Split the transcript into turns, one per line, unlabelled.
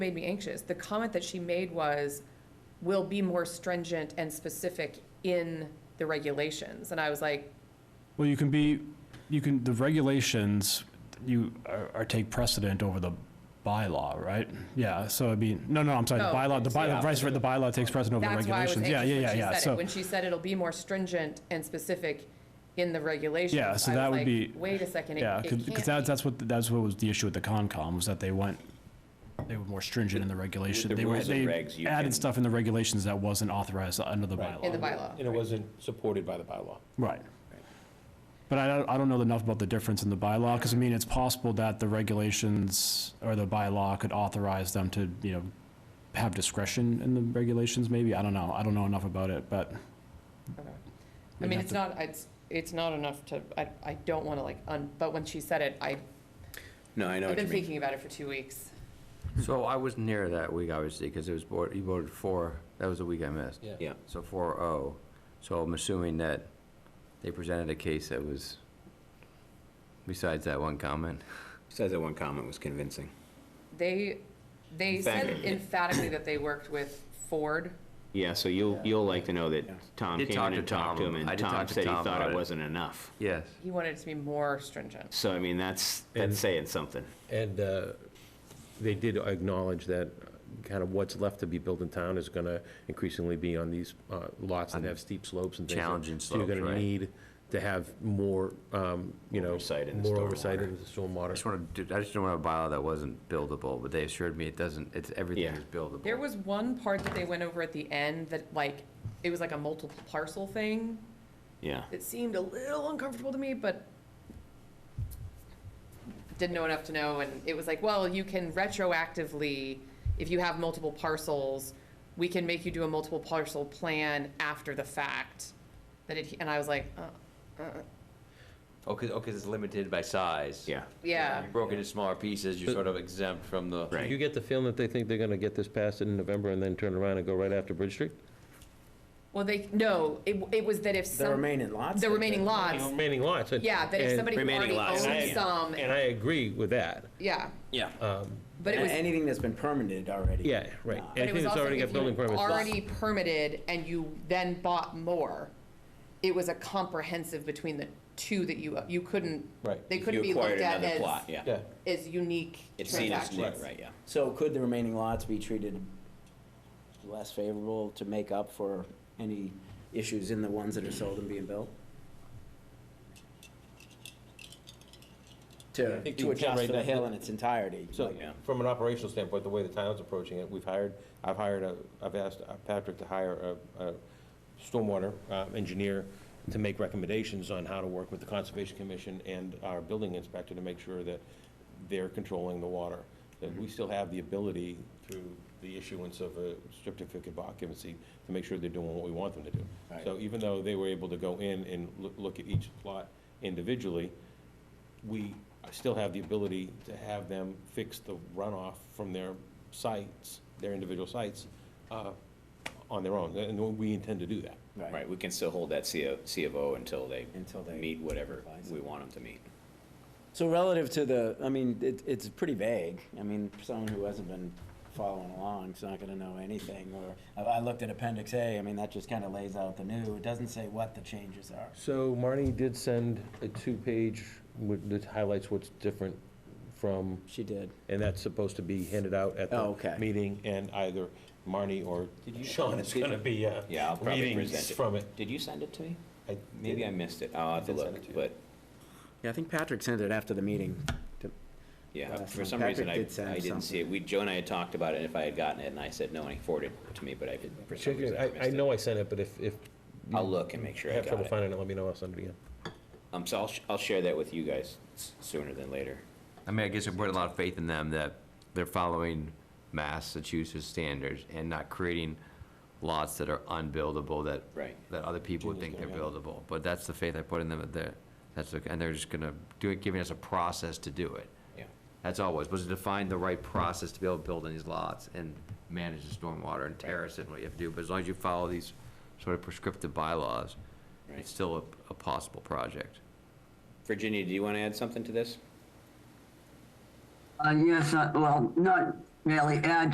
made me anxious. The comment that she made was, "Will be more stringent and specific in the regulations." And I was like,
Well, you can be, you can, the regulations, you are, are take precedent over the bylaw, right? Yeah, so I mean, no, no, I'm sorry, the
Oh,
bylaw, the bylaw, vice versa, the bylaw takes precedent over the
that's why I was
regulations.
anxious
Yeah, yeah,
when she said
yeah, yeah,
it.
so,
When she said it'll be more stringent and specific in the regulations.
Yeah, so
I was
that would
like,
be-
Wait a second, it
yeah,
it can't
because that's,
be."
that's what, that's what was the issue with the Concom, was that they went, they were more stringent in the regulation.
the
They were,
rules and
they
regs, you can-
added stuff in the regulations that wasn't authorized under the
Right.
bylaw.
In the bylaw.
And it wasn't supported by the bylaw.
Right. But I don't, I don't know enough about the difference in the bylaw, because I mean, it's possible that the regulations or the bylaw could authorize them to, you know, have discretion in the regulations, maybe, I don't know, I don't know enough about it, but.
Okay. I
We'd
mean,
have
it's
to-
not, it's, it's not enough to, I, I don't want to like, un, but when she said it, I,
No, I know
I've
what you
been
mean.
thinking about it for two weeks.
So I wasn't here that week, obviously, because it was, board- you voted four, that was the week I missed.
Yeah.
Yeah,
So four oh. So I'm assuming that they presented a case that was, besides that one comment.
says that one comment was convincing.
They, they
In
said
fact-
emphatically that they worked with Ford.
Yeah, so you'll, you'll like to know that
Yeah.
Tom
Did
came
talk
in
to
and talked to him,
Tom. I
and
did
Tom
talk to
said he
Tom
thought
about
it
it.
wasn't enough.
Yes.
He wanted it to be more stringent.
So, I mean, that's, that's
And-
saying something.
And uh, they did acknowledge that kind of what's left to be built in town is going to increasingly be on these uh, lots that have steep slopes and things.
Challenging
So you're
slopes,
going
right.
to need to have more, um, you know.
Oversight in the
More oversight
stormwater.
into the
I
stormwater.
just want to, I just don't want a bylaw that wasn't buildable, but they assured me it doesn't, it's, everything
Yeah.
is buildable.
There was one part that they went over at the end that like, it was like a multiple parcel thing.
Yeah.
It seemed a little uncomfortable to me, but didn't know enough to know, and it was like, well, you can retroactively, if you have multiple parcels, we can make you do a multiple parcel plan after the fact, that it, and I was like, uh, uh,
Oh, because it's limited by size.
Yeah.
yeah.
You broke it into smaller pieces, you're sort of exempt from the.
Right.
You get the feeling that they think they're going to get this passed in November and then turn around and go right after Bridge Street?
Well, they, no, it, it was that if some. The remaining lots? The remaining lots,
Remaining lots. and-
yeah, that if
and-
somebody who already
Remaining lots,
owns
yeah.
some,
And I agree with that.
yeah,
Yeah.
but it
A-
was.
Anything that's been permitted already.
Yeah, right.
But
But it
Anything
was
that's
also
already
if
got building
you
permits.
Already permitted and you then bought more, it was a comprehensive between the two that you, you couldn't,
Right.
they couldn't be looked at as,
Yeah.
as unique
It's seen as new,
transactions.
right, yeah.
So could the remaining lots be treated less favorable to make up for any issues in the ones that are sold and being built?
I
To,
think
to
you can
adjust
right
for the
now.
hill in its entirety?
So,
like-
from an operational standpoint, the way the town's approaching it, we've hired, I've hired, a- I've asked uh, Patrick to hire a, a stormwater uh, engineer to make recommendations on how to work with the Conservation Commission and our building inspector to make sure that they're controlling the water. That we still have the ability through the issuance of a certificate of occupancy to make sure they're doing what we want them to do.
Right.
So even though they were able to go in and loo- look at each plot individually, we still have the ability to have them fix the runoff from their sites, their individual sites, uh, on their own, and we intend to do that.
Right, we can still hold that C O- C of O until they
Until they
meet whatever
revise it.
we want them to meet.
So relative to the, I mean, it, it's pretty vague. I mean, someone who hasn't been following along is not gonna know anything, or, I, I looked at Appendix A, I mean, that just kinda lays out the new, it doesn't say what the changes are.
So Marnie did send a two-page with- that highlights what's different from,
She did.
and that's supposed to be handed out at
Oh,
the
okay.
meeting, and either Marnie or Sean is gonna be, uh,
Yeah, I'll probably
readings
present it.
from it.
Did you send it to me?
I
Maybe I
didn't.
missed it. I'll have to
did send it to
look,
you.
but,
Yeah, I think Patrick sent it after the meeting. to-
yeah,
Last
for
one.
some reason, I,
uh, Patrick did send
I didn't see it. We, Joe and I had talked about it, and if I had gotten it, and I said no, and he forwarded it to me, but I did, for some reason, I
I, I
missed it.
know I sent it, but if, if
I'll look and make
you
sure I
have
got
trouble
it.
finding it, let me know, I'll send it again.
Um, so I'll, sh- I'll share that with you guys s- sooner than later.
I mean, I guess I put a lot of faith in them that they're following Massachusetts standards and not creating lots that are unbuildable that.
Right.
That other people would think they're buildable, but that's the faith I put in them, that, they're- that's, the- and they're just gonna do it, giving us a process to do it.
Yeah.
That's always, was to find the right process to be able to build in these lots and manage the stormwater and terrace and what you have to do, but as long as you follow these sort of prescriptive bylaws,
Right.
it's still a, a possible project.
Virginia, do you want to add something to this?
Uh, yes, uh, well, not really add